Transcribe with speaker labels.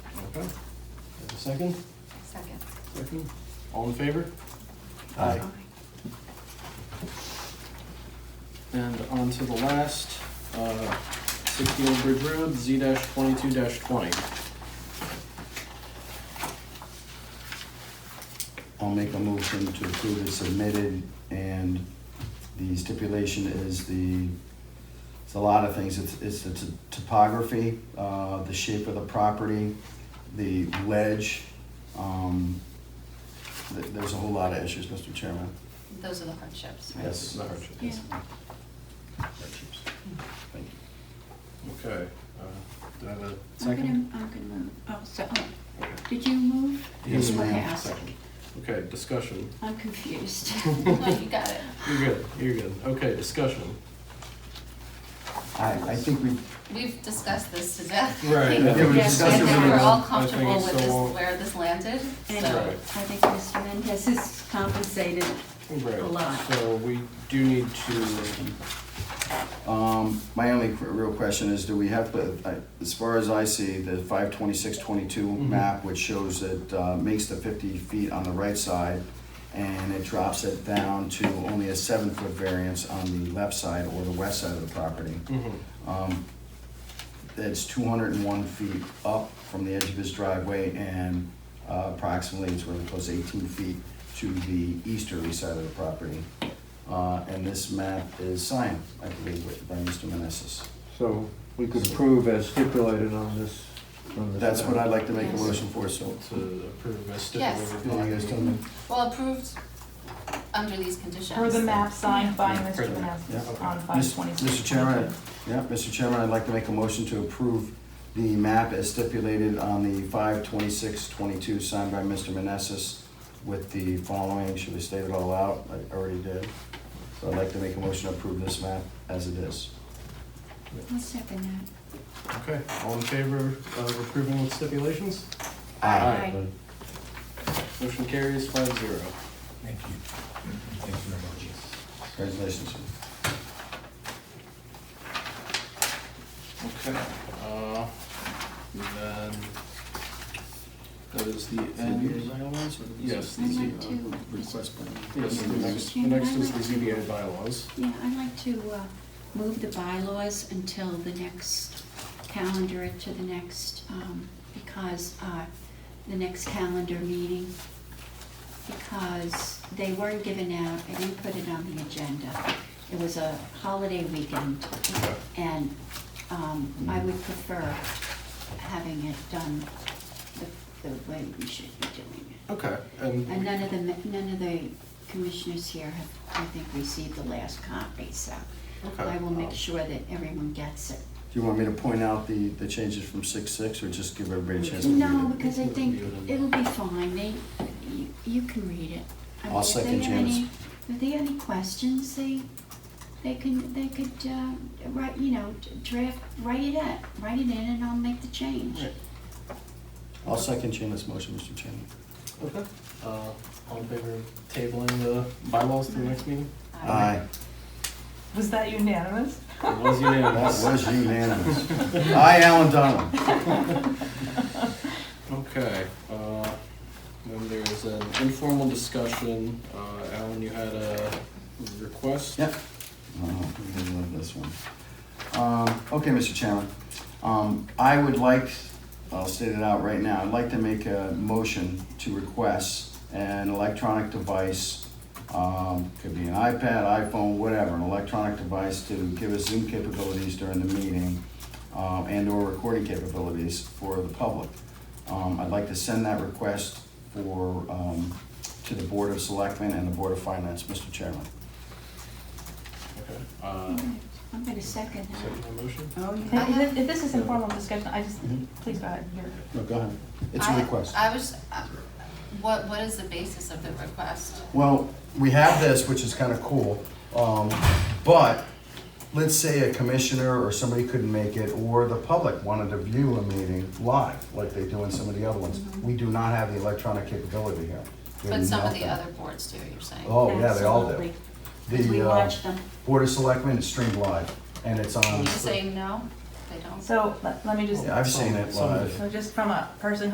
Speaker 1: Okay. Have a Second?
Speaker 2: Second.
Speaker 1: Second. All in favor?
Speaker 3: Aye.
Speaker 1: And on to the last, uh, sixty Old Bridge Road, Z twenty-two twenty.
Speaker 3: I'll make a motion to approve as submitted, and the stipulation is the, it's a lot of things, it's, it's the t- topography, uh, the shape of the property, the ledge, um, th- there's a whole lot of issues, Mr. Chairman.
Speaker 2: Those are the hardships, right?
Speaker 3: Yes.
Speaker 1: The hardship,
Speaker 2: Yeah.
Speaker 1: yes. Hardships.
Speaker 3: Thank you.
Speaker 1: Okay, uh, do I have a
Speaker 4: I'm gonna,
Speaker 1: second?
Speaker 4: I'm gonna move, oh, so, oh,
Speaker 1: Okay.
Speaker 4: did you move?
Speaker 3: Yes,
Speaker 4: You
Speaker 3: ma'am.
Speaker 4: asked.
Speaker 1: Second. Okay, discussion.
Speaker 4: I'm confused.
Speaker 2: No, you got it.
Speaker 1: You're good, you're good. Okay, discussion.
Speaker 3: I, I think we,
Speaker 2: We've discussed this to death.
Speaker 1: Right, I
Speaker 2: I
Speaker 1: think
Speaker 2: think
Speaker 4: we discussed it really
Speaker 2: we're
Speaker 4: well.
Speaker 2: all
Speaker 1: I think
Speaker 2: comfortable
Speaker 1: it's
Speaker 2: with this,
Speaker 1: all-
Speaker 2: where this landed,
Speaker 4: And
Speaker 2: so.
Speaker 4: I
Speaker 1: Right.
Speaker 4: think Mr. Mendez is compensated.
Speaker 1: Right.
Speaker 4: A lot.
Speaker 1: So we do need to,
Speaker 3: um, my only qu- real question is, do we have to, I- as far as I see, the five twenty-six twenty-two
Speaker 1: Mhm.
Speaker 3: map, which shows it, uh, makes the fifty feet on the right side, and it drops it down to only a seven-foot variance on the left side or the west side of the property.
Speaker 1: Mhm.
Speaker 3: Um, It's two hundred and one feet up from the edge of his driveway and uh, approximately, it's really close, to eighteen feet to the easterly side of the property. Uh, And this map is signed, I believe, with- by Mr. Meneses.
Speaker 5: So we could approve as stipulated on this, on this.
Speaker 3: That's what I'd like to make a
Speaker 2: Yes.
Speaker 3: motion for, so.
Speaker 1: to approve as
Speaker 2: Yes.
Speaker 1: stipulated.
Speaker 3: Can you guys tell me?
Speaker 2: Well, approved under these conditions.
Speaker 6: For the map signed by
Speaker 1: Yeah, for
Speaker 6: Mr.
Speaker 1: the map,
Speaker 6: Meneses
Speaker 1: yeah.
Speaker 6: on
Speaker 3: Mis-
Speaker 6: five twenty-six.
Speaker 3: Mr. Chairman, yeah, Mr. Chairman, I'd like to make a motion to approve the map as stipulated on the five twenty-six twenty-two signed by Mr. Meneses with the following, should we state it all out? I already did. So I'd like to make a motion to approve this map as it is.
Speaker 4: I'll second that.
Speaker 1: Okay, all in favor of approving with stipulations?
Speaker 2: Aye.
Speaker 1: Motion carries five zero.
Speaker 7: Thank you. Thank you very much.
Speaker 3: Congratulations.
Speaker 1: Okay. uh, and Then, that is the end. Yes,
Speaker 4: I'd
Speaker 1: these are,
Speaker 4: like to, Mr.
Speaker 3: Request by.
Speaker 1: Yes, the next, the next is the ZBA bylaws.
Speaker 4: Yeah, I'd like to, uh, move the bylaws until the next calendar, to the next, um, because, uh, the next calendar meeting, because they weren't given out, I didn't put it on the agenda. It was a holiday weekend, and, um, I would prefer having it done the, the way we should be doing it.
Speaker 1: Okay, and
Speaker 4: And none of the, none of the commissioners here have, I think, received the last copy, so
Speaker 1: Okay.
Speaker 4: I will make sure that everyone gets it.
Speaker 3: Do you want me to point out the, the changes from six-six or just give everybody a chance to read it?
Speaker 4: No, because I think it'll be fine, they, you, you can read it. I mean,
Speaker 3: I'll
Speaker 4: if they
Speaker 3: second
Speaker 4: have any-
Speaker 3: Janice.
Speaker 4: If they have any questions, they, they can, they could, uh, write, you know, draft, write it up, write it in and I'll make the change.
Speaker 1: Right.
Speaker 3: I'll second Shayna's motion, Mr. Chairman.
Speaker 1: Okay, uh, all in favor of tabling the bylaws to the next meeting?
Speaker 3: Aye.
Speaker 6: Was that unanimous?
Speaker 1: It was
Speaker 3: That
Speaker 1: unanimous.
Speaker 3: was unanimous. Aye, Alan Donald.
Speaker 1: Okay, uh, then there's an informal discussion, uh, Alan, you had a request?
Speaker 3: Yep. Oh, I love this one. Um, okay, Mr. Chairman, um, I would like, I'll state it out right now, I'd like to make a motion to request an electronic device, um, could be an iPad, iPhone, whatever, an electronic device to give us Zoom capabilities during the meeting, um, and or recording capabilities for the public. Um, I'd like to send that request for, um, to the Board of Selectmen and the Board of Finance, Mr. Chairman.
Speaker 1: Okay, uh,
Speaker 4: Alright, I'm gonna second that.
Speaker 1: second motion?
Speaker 4: Oh,
Speaker 6: If-
Speaker 4: yeah.
Speaker 6: If if this is informal discussion, I just,
Speaker 3: Mhm.
Speaker 6: please go ahead, you're.
Speaker 3: No, go ahead. It's a
Speaker 2: I-
Speaker 3: request.
Speaker 2: I was, uh, what, what is the basis of the request?
Speaker 3: Well, we have this, which is kind of cool, um, but let's say a commissioner or somebody couldn't make it, or the public wanted to view a meeting live, like they do in some of the other ones. We do not have the electronic capability here. We have
Speaker 2: But some of the
Speaker 3: nothing.
Speaker 2: other boards do, you're saying?
Speaker 3: Oh, yeah, they all do.
Speaker 6: Absolutely.
Speaker 4: Because we
Speaker 3: The uh,
Speaker 4: watched them.
Speaker 3: Board of Selectmen is streamed live, and it's on,
Speaker 2: You're saying no, they don't?
Speaker 6: So let let me just,
Speaker 3: Yeah, I've seen it
Speaker 1: Some of
Speaker 3: live.
Speaker 6: so just from a person